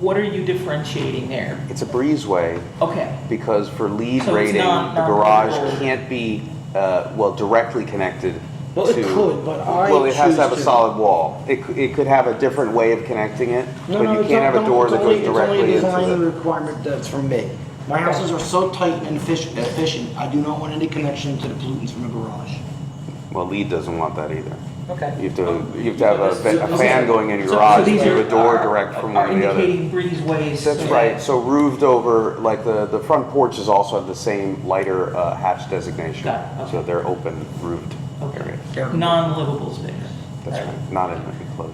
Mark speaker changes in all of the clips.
Speaker 1: What are you differentiating there?
Speaker 2: It's a breezeway
Speaker 1: Okay,
Speaker 2: because for lead
Speaker 1: So it's
Speaker 2: rating,
Speaker 1: not-
Speaker 2: the
Speaker 1: not
Speaker 2: garage
Speaker 1: legal.
Speaker 2: can't be, uh, well, directly connected to.
Speaker 3: Well, it could, but I
Speaker 2: Well, it has
Speaker 3: choose
Speaker 2: to have a
Speaker 3: to-
Speaker 2: solid wall. It, c- it could have a different way of connecting it,
Speaker 3: No,
Speaker 2: but
Speaker 3: no,
Speaker 2: you
Speaker 3: it's
Speaker 2: can't have a
Speaker 3: not-
Speaker 2: door
Speaker 3: it's
Speaker 2: that
Speaker 3: only-
Speaker 2: goes directly
Speaker 3: It's only a design
Speaker 2: into it.
Speaker 3: requirement that's from me. My houses are so tight and efficient, efficient, I do not want any connection to the pollutants from a garage.
Speaker 2: Well, lead doesn't want that either.
Speaker 1: okay.
Speaker 2: You have to, you have to have a,
Speaker 3: So-
Speaker 2: fa- a
Speaker 3: so-
Speaker 2: fan going in your
Speaker 1: So- so
Speaker 2: garage,
Speaker 1: these
Speaker 2: you have
Speaker 1: are-
Speaker 2: a door
Speaker 1: are-
Speaker 2: direct from one
Speaker 1: are
Speaker 2: to the other.
Speaker 1: Indicating breezeways. so
Speaker 2: That's
Speaker 1: that-
Speaker 2: right, so roofed over, like the, the front porches also have the same lighter uh, hatch designation.
Speaker 1: Got it, okay.
Speaker 2: So they're open roofed
Speaker 1: Okay.
Speaker 2: areas.
Speaker 1: Non-livable space.
Speaker 2: That's right, not in an enclosure.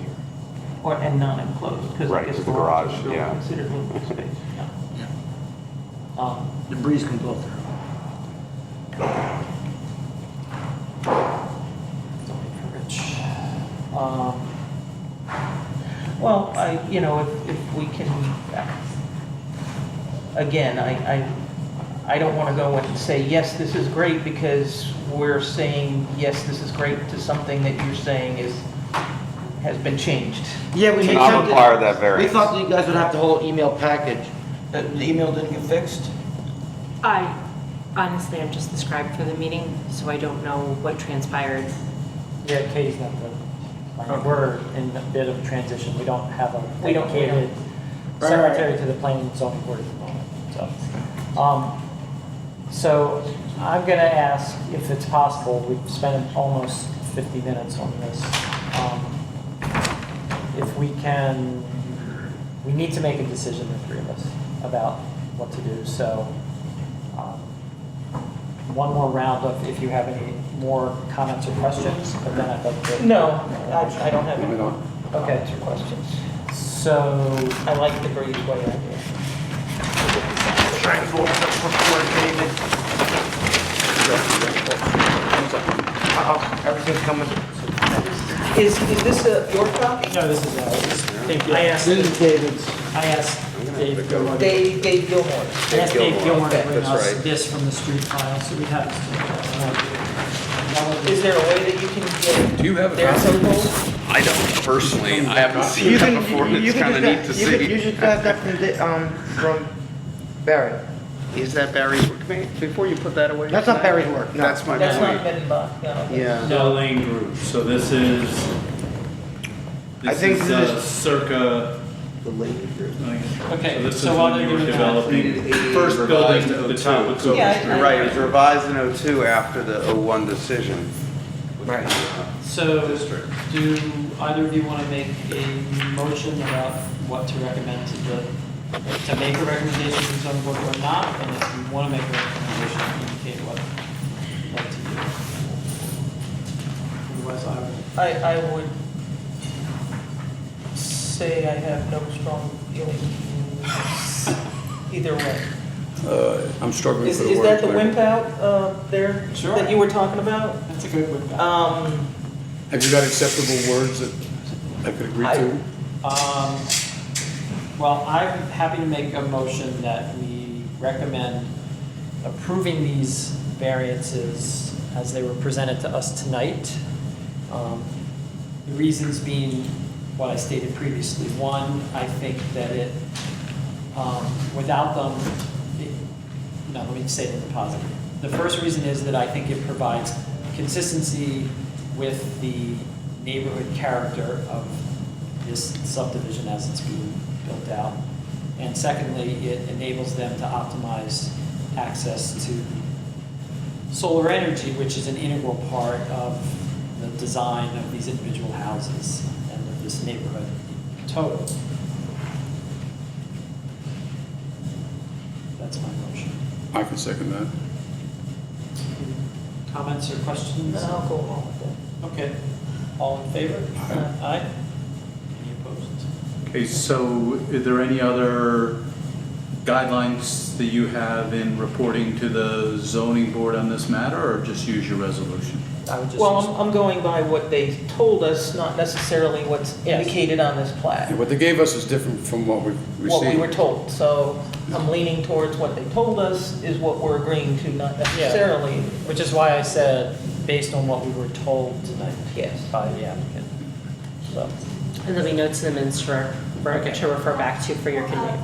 Speaker 1: Or, and non-enclosed, because I
Speaker 2: Right,
Speaker 1: guess
Speaker 2: it's the
Speaker 1: garage
Speaker 2: garage,
Speaker 1: is still
Speaker 2: yeah.
Speaker 1: considered livable space. yeah. Um,
Speaker 3: The breeze can blow through.
Speaker 1: Don't make her rich. Um, Well, I, you know, if, if we can, again, I, I, I don't want to go and say, yes, this is great, because we're saying, yes, this is great to something that you're saying is, has been changed.
Speaker 3: Yeah, we
Speaker 2: It's
Speaker 3: made
Speaker 2: not
Speaker 3: something-
Speaker 2: required that
Speaker 3: We
Speaker 2: variance.
Speaker 3: thought that you guys would have the whole email package. Uh, The email didn't get fixed?
Speaker 4: I honestly, I'm just the scribe for the meeting, so I don't know what transpired.
Speaker 5: Yeah, Katie's not the, like, we're in a bit of a transition, we don't have a
Speaker 1: We don't- we
Speaker 5: dedicated
Speaker 3: Right.
Speaker 5: secretary to the planning and zoning board at the moment, so. Um, So I'm gonna ask if it's possible, we've spent almost 50 minutes on this. um, If we can, we need to make a decision, the three of us, about what to do, so um, one more round of if you have any more comments or questions, but then I'd like to.
Speaker 1: No, I, I don't have any
Speaker 5: Okay.
Speaker 1: comments or questions.
Speaker 5: So,
Speaker 1: I like the breezeway idea.
Speaker 3: Uh-oh, everything's coming.
Speaker 1: Is, is this a, your copy?
Speaker 5: no, this is, uh, this- thank you. I
Speaker 3: This
Speaker 5: asked,
Speaker 3: is David's.
Speaker 5: I asked Dave Gilmore. I
Speaker 1: Dave, Dave Gilmore.
Speaker 5: asked Dave
Speaker 2: Gilmore.
Speaker 5: Gilmore to
Speaker 1: Okay.
Speaker 5: bring
Speaker 2: That's
Speaker 5: us
Speaker 2: right.
Speaker 5: this from the street file, so we have this. to-
Speaker 1: Is there a way that you can get?
Speaker 6: Do you have a
Speaker 1: their
Speaker 6: copy?
Speaker 1: approval?
Speaker 6: I don't personally, I haven't seen that before, and it's kind of neat to see.
Speaker 3: just got that from, um, from Barry.
Speaker 7: Is that Barry's work? May- Before you put that away?
Speaker 3: That's not Barry's work, no.
Speaker 7: That's my
Speaker 1: That's not
Speaker 7: point.
Speaker 1: been, bu- no.
Speaker 7: Yeah.
Speaker 8: Dell Lane Group, so this is,
Speaker 7: I
Speaker 8: this
Speaker 7: think
Speaker 8: is
Speaker 7: this-
Speaker 8: uh, circa. The Lane Group.
Speaker 5: Okay,
Speaker 8: this is
Speaker 5: so while
Speaker 8: when
Speaker 5: they're
Speaker 8: you were
Speaker 5: doing that-
Speaker 8: developing, first
Speaker 7: Revised
Speaker 8: building, the
Speaker 7: in
Speaker 8: top was over.
Speaker 1: Yeah,
Speaker 8: Street.
Speaker 1: I-
Speaker 2: You're right, it was revised in '02 after the '01 decision.
Speaker 5: So,
Speaker 2: District.
Speaker 5: do either of you want to make a motion about what to recommend to the, to make a recommendation to the zoning board or not? And if you want to make a recommendation, indicate what you'd like to do. Otherwise, I would
Speaker 1: I, I would say I have no strong feelings either way.
Speaker 9: Uh, I'm struggling
Speaker 1: Is,
Speaker 9: for the
Speaker 1: is
Speaker 9: word.
Speaker 1: that the wimp out, uh, there?
Speaker 5: Sure.
Speaker 1: That you were talking about?
Speaker 5: That's a good one. Um,
Speaker 1: Um,
Speaker 9: Have you got acceptable words that I could agree
Speaker 1: I-
Speaker 9: to?
Speaker 5: Um, well, I'm happy to make a motion that we recommend approving these variances as they were presented to us tonight. Um, The reasons being what I stated previously. One, I think that it, um, without them, it- no, let me say it in the positive. The first reason is that I think it provides consistency with the neighborhood character of this subdivision as it's being built out. And secondly, it enables them to optimize access to solar energy, which is an integral part of the design of these individual houses and of this neighborhood in total. That's my motion.
Speaker 9: I can second that.
Speaker 5: Comments or questions?
Speaker 1: then I'll go along with
Speaker 5: Okay. All in favor? Aye. Any opposed?
Speaker 8: Okay, so are there any other guidelines that you have in reporting to the zoning board on this matter, or just use your resolution?
Speaker 5: I would
Speaker 1: that.
Speaker 5: just.
Speaker 1: Well, I'm, I'm going by what they told us, not necessarily what's
Speaker 5: Yes.
Speaker 1: indicated on this plat.
Speaker 9: And what they gave us is different from what we've
Speaker 1: what we were
Speaker 9: received.
Speaker 1: told. So I'm leaning towards what they told us is what we're agreeing to, not necessarily,
Speaker 5: um, Which is why I said, based on what we were told tonight
Speaker 1: yes.
Speaker 5: by the applicant.
Speaker 1: So,
Speaker 4: And there'll be notes in the minutes for refer, to refer back to for your convenience.